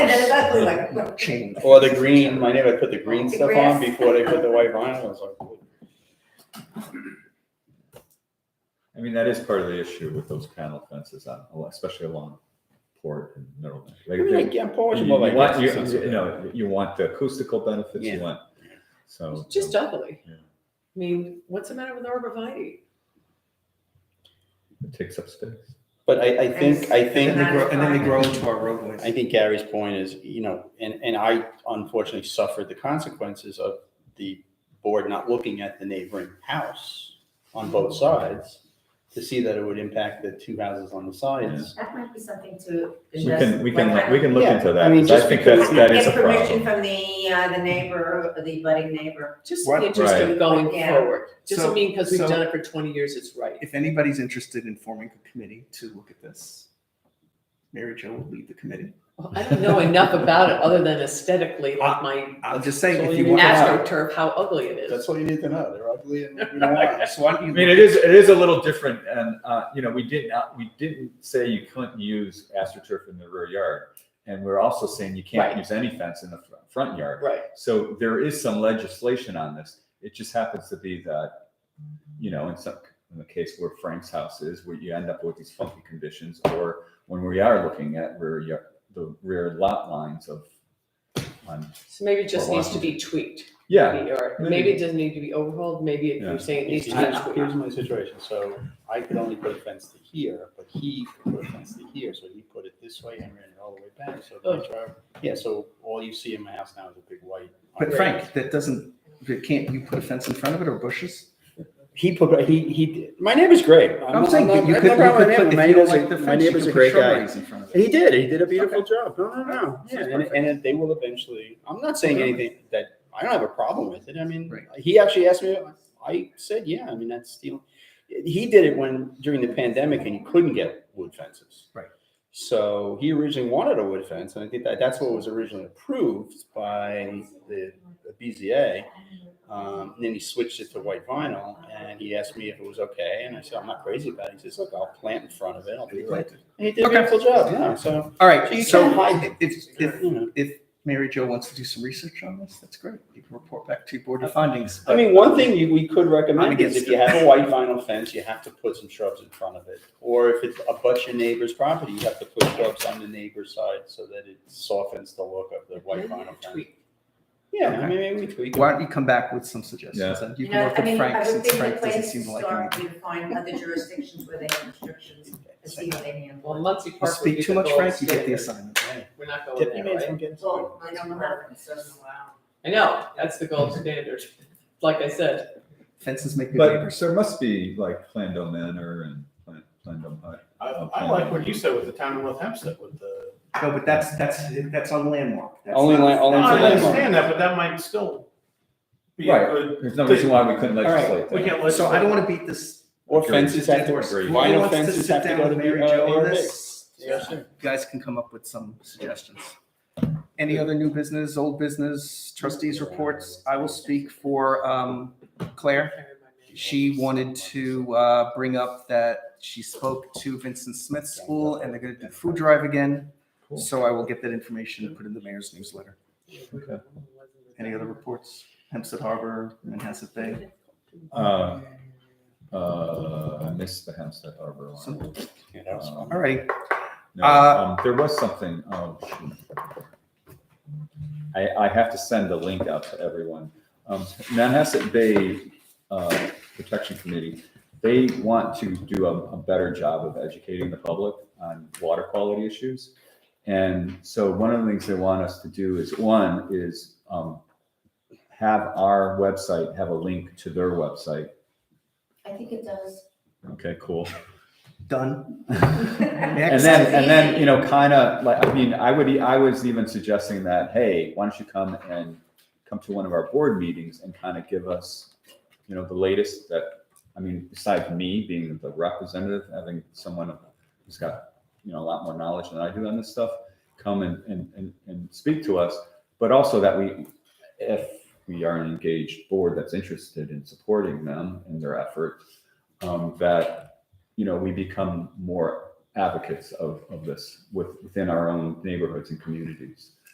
Exactly like, no, change. Or the green, my neighbor put the green The stuff on grass. before they put the white vinyl, I was like, I mean, that is part of the issue with those panel fences, on, especially along Port and Middleton. Like, I mean, they- like, yeah, You Portugal, you like. want, you, that's- you know, you want the acoustical benefits, you Yeah. want, so. It's just ugly. Yeah. I mean, what's the matter with arborvitae? It takes up space. But I, I think, I think. And they that is grow, and then they fine. grow into our roadways. I think Gary's point is, you know, and, and I unfortunately suffered the consequences of the board not looking at the neighboring house on both sides to see that it would impact the two houses on the sides. That might be something to. We address. can, we can, Like, we can look Yeah, into I that, mean, 'cause I just think because that's, that is a Get permission problem. from the, uh, the neighbor, the budding neighbor. Just What? the interest of Right. going Yeah. forward. Just So- I mean, because we've so- done it for twenty years, it's right. If anybody's interested in forming a committee to look at this, Mary Jo will lead the committee. Well, I don't know enough about it other than aesthetically, like my I'm just saying, So Uh, if you you want. ask her- astroturf, how ugly it is. That's all you need to know. They're ugly and we don't want them. So why don't I you? mean, it is, it is a little different, and, uh, you know, we didn't, we didn't say you couldn't use astroturf in the rear yard. And we're also saying you can't Right. use any fence in the fr- front yard. Right. So there is some legislation on this. It just happens to be that, you know, in some, in the case where Frank's house is, where you end up with these funky conditions, or when we are looking at rear, yard- the rear lot lines of, on, So maybe it just Or needs to be tweaked. yeah, maybe, Or maybe. maybe it doesn't need to be overhauled. Maybe if Yeah. you're saying it needs to I- be Here's tweaked. my situation, so I could only put a fence to here, but he could put a fence to here, so he put it this way and ran it all the way back, so the Oh. drive, yeah, so all you see in my house now is a big white. But Frank, that doesn't, that can't, you put a fence in front of it or bushes? He put, he, he, did- my neighbor's great. I'm saying, not- that you I have could, you no problem with could my put, neighbor. if you don't like the My fence, you neighbor's a could put great guy. shrubberies in front of it. He did, he did a beautiful job. No, no, no. Sounds Yeah, and, perfect. and they will eventually, I'm not saying anything that, I don't have a problem with it. I mean, Right. he actually asked me, I said, yeah, I mean, that's the, he did it when, during the pandemic and he couldn't get wood fences. Right. So he originally wanted a wood fence and I think that, that's what was originally approved by the the BZA. Um, and then he switched it to white vinyl and he asked me if it was okay. And I said, I'm not crazy about it. He says, look, I'll plant in front of it. I'll be right. And he did a Okay. beautiful job, yeah, so. All so right, you so can hide if, if, you know. if Mary Jo wants to do some research on this, that's great. You can report back to your board of findings. I mean, one thing you- we could recommend is if against you it. have a white vinyl fence, you have to put some shrubs in front of it. Or if it's abuts your neighbor's property, you have to put shrubs on the neighbor's side so that it softens the look of the white Maybe vinyl fence. tweak. Yeah, I mean, maybe we tweak. it. Why don't you come back with some suggestions Yeah. and you You can know, I work with mean, I Frank would since think the Frank doesn't place to seem to like start him. would be to find other jurisdictions where they have restrictions to see how they handle Well, it. Muncie You Park. would speak be too the much gold Frank, you get the standard. assignment. We're not going Deputy there, Mayor from right? Gunson. Well, I don't know how it doesn't allow. I know, that's the gold standard. Like I said, Fences make good but neighbors. there must be like Plando Manor and uh, Plan- Plando Hut. I, I like what you said with the town of North Hempstead with the. No, but that's, that's, that's on landmark. That's Only not- land- only No, for that's I not- understand that, but that might still be a Right. good, There's no reason why we couldn't right, legislate we that. can't listen. So I don't want to beat this. Or Agreed. fences have to, Agreed. Who vinyl wants to fences sit have to down go to with the Mary Jo on uh, ARB. this? Yeah, sure. You Guys can come up with some suggestions. Any other new business, old business, trustees reports? I will speak for um, Claire. She wanted to uh, bring up that she spoke to Vincent Smith School and they're going to do food drive again. Cool. So I will get that information and put in the mayor's newsletter. Okay. Any other reports? Hempstead Harbor, Manhasset Bay. Uh, uh, I missed the Hempstead Harbor So- one. Yeah, that was fun. All right, No, Uh, um, there was something, oh, shoot. I, I have to send the link out to everyone. Um, Manhasset Bay, uh, Protection Committee, they want to do a, a better job of educating the public on water quality issues. And so one of the things they want us to do is, one, is, um, have our website have a link to their website. I think it does. Okay, cool. done. And Next. then, and then, you know, kind of like, I mean, I would, e- I was even suggesting that, hey, why don't you come and come to one of our board meetings and kind of give us, you know, the latest that, I mean, besides me being the representative, having someone who's got, you know, a lot more knowledge than I do on this stuff, come and, and, and, and speak to us, but also that we, if we are an engaged board that's interested in supporting them in their effort, um, that, you know, we become more advocates of, of this with, within our own neighborhoods and communities.